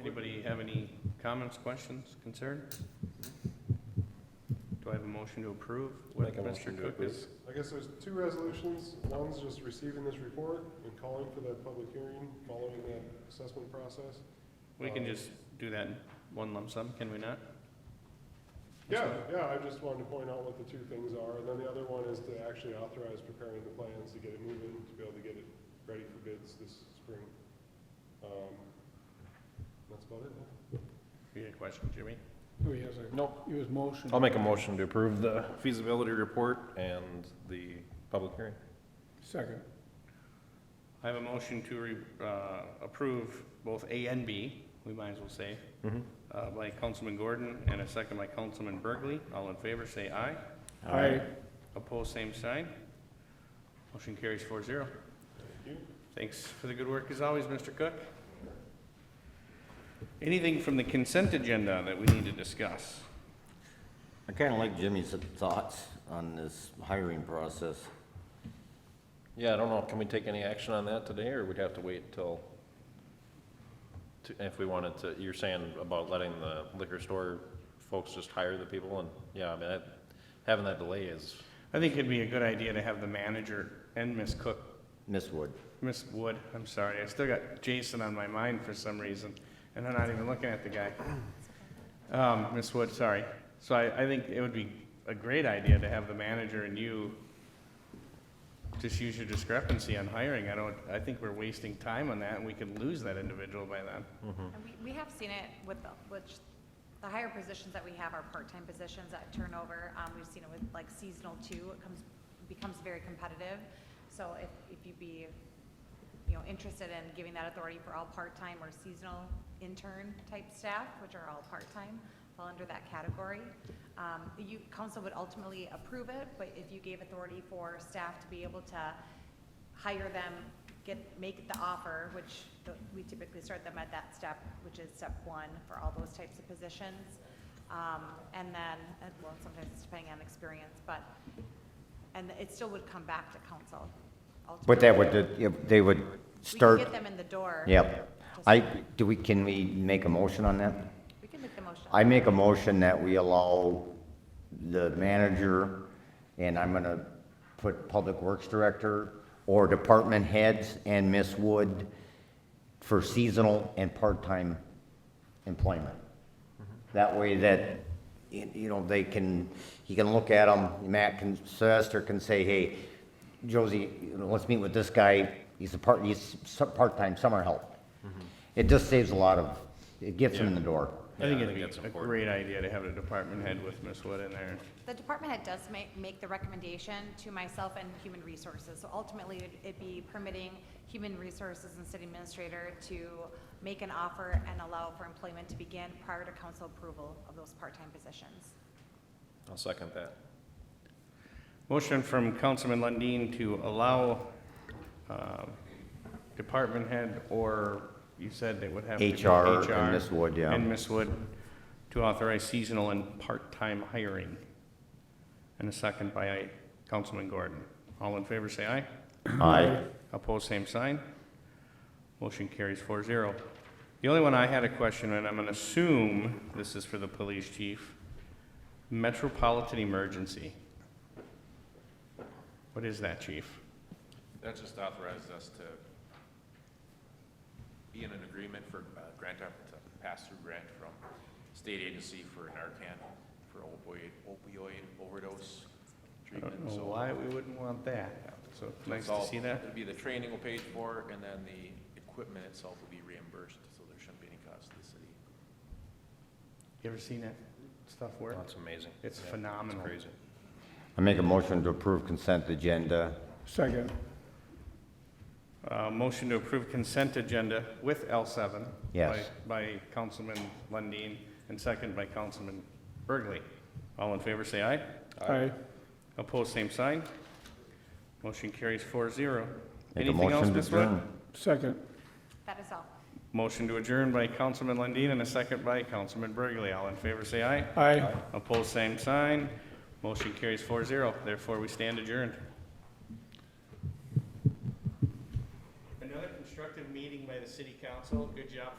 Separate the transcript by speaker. Speaker 1: Anybody have any comments, questions, concerns? Do I have a motion to approve what
Speaker 2: Make a
Speaker 1: Mr.
Speaker 2: motion to
Speaker 1: Cook is?
Speaker 3: I guess there's two resolutions. One's just receiving this report and calling for that public hearing following that assessment process.
Speaker 1: We can just do that in one lump sum, can we not?
Speaker 3: Yeah, yeah, I just wanted to point out what the two things are. And then the other one is to actually authorize preparing the plans to get it moving, to be able to get it ready for bids this spring. Um, That's about it. yeah.
Speaker 1: You had a question, Jimmy?
Speaker 4: Oh, he has a,
Speaker 2: Nope.
Speaker 4: he was motion.
Speaker 2: I'll make a motion to approve the feasibility report and the public hearing.
Speaker 4: Second.
Speaker 1: I have a motion to re, uh, approve both A and B, we might as well say,
Speaker 2: Mhm.
Speaker 1: uh, by Councilman Gordon and a second by Councilman Burgley. All in favor, say aye.
Speaker 4: Aye.
Speaker 1: Opposed, same sign. Motion carries four zero.
Speaker 3: Thank you.
Speaker 1: Thanks for the good work as always, Mr. Cook. Anything from the consent agenda that we need to discuss?
Speaker 5: I kind of like Jimmy's thoughts on this hiring process.
Speaker 2: Yeah, I don't know, can we take any action on that today, or we'd have to wait till, to- if we wanted to, you're saying about letting the liquor store folks just hire the people, and, yeah, I mean, that, having that delay is,
Speaker 1: I think it'd be a good idea to have the manager and Ms. Cook,
Speaker 5: Miss Wood,
Speaker 1: Ms. Wood, I'm sorry, I still got Jason on my mind for some reason, and I'm not even looking at the guy. Um, Ms. Wood, sorry. So I, I think it would be a great idea to have the manager and you just use your discrepancy on hiring. I don't, I think we're wasting time on that, and we could lose that individual by then.
Speaker 6: And we, we have seen it with, the- which, the higher positions that we have are part-time positions that turnover. Um, we've seen it with like seasonal too, it comes, becomes very competitive. So if, if you'd be, you know, interested in giving that authority for all part-time or seasonal intern type staff, which are all part-time, fall under that category. Um, you, council would ultimately approve it, but if you gave authority for staff to be able to hire them, get, make the offer, which the- we typically start them at that step, which is step one for all those types of positions. Um, and then, and, well, sometimes it's depending on experience, but, and it still would come back to council ultimately.
Speaker 5: but that would, yeah, they would
Speaker 6: We can
Speaker 5: start,
Speaker 6: get them in the door.
Speaker 5: yep.
Speaker 6: Just-
Speaker 5: I, do we, can we make a motion on that?
Speaker 6: We can make the motion.
Speaker 5: I make a motion that we allow the manager, and I'm gonna put Public Works Director or Department Heads and Miss Wood for seasonal and part-time employment. That way that, y- you know, they can, he can look at them, Matt can, Sylvester can say, hey, Josie, you know, let's meet with this guy, he's a part, he's s- part-time summer help. It just saves a lot of, it gets him in the door.
Speaker 1: I think
Speaker 2: Yeah, I
Speaker 1: it'd
Speaker 2: think
Speaker 1: be
Speaker 2: that's
Speaker 1: a
Speaker 2: important.
Speaker 1: great idea to have a department head with Ms. Wood in there.
Speaker 6: The department head does make, make the recommendation to myself and Human Resources. So ultimately, it'd- it'd be permitting Human Resources and City Administrator to make an offer and allow for employment to begin prior to council approval of those part-time positions.
Speaker 2: I'll second that.
Speaker 1: Motion from Councilman Lundin to allow uh, department head, or you said they would have to be
Speaker 5: HR and
Speaker 1: HR
Speaker 5: Ms. Wood, yeah.
Speaker 1: And Ms. Wood to authorize seasonal and part-time hiring. And a second by Councilman Gordon. All in favor, say aye.
Speaker 5: Aye.
Speaker 1: Opposed, same sign. Motion carries 4-0. The only one I had a question, and I'm gonna assume this is for the police chief, metropolitan emergency. What is that, chief?
Speaker 7: That just authorizes us to be in an agreement for uh, grant, up- to pass through grant from state agency for Narcan for opioid, opioid overdose
Speaker 1: I
Speaker 7: treatment.
Speaker 1: don't know
Speaker 7: So
Speaker 1: Uh, why we wouldn't want that, so nice
Speaker 7: it's
Speaker 1: to
Speaker 7: all-
Speaker 1: see that.
Speaker 7: It'll be the training will pay for, it, and then the equipment itself will be reimbursed, so there shouldn't be any cost to the city.
Speaker 1: You ever seen that stuff work?
Speaker 2: That's amazing.
Speaker 1: It's
Speaker 2: Yeah,
Speaker 1: phenomenal.
Speaker 2: It's crazy.
Speaker 5: I make a motion to approve consent agenda.
Speaker 4: Second.
Speaker 1: Uh, motion to approve consent agenda with L seven.
Speaker 5: Yes.
Speaker 1: By Councilman Lundin, and second by Councilman Burgley. All in favor, say aye.
Speaker 4: Aye.
Speaker 1: Opposed, same sign. Motion carries 4-0.
Speaker 5: Make a
Speaker 1: Anything else,
Speaker 5: motion to
Speaker 1: Ms. Wood?
Speaker 5: adjourn.
Speaker 4: Second.
Speaker 6: That is all.
Speaker 1: Motion to adjourn by Councilman Lundin and a second by Councilman Burgley. All in favor, say aye.
Speaker 4: Aye.
Speaker 1: Opposed, same sign. Motion carries 4-0. Therefore, we stand adjourned. Another constructive meeting by the city council. Good job,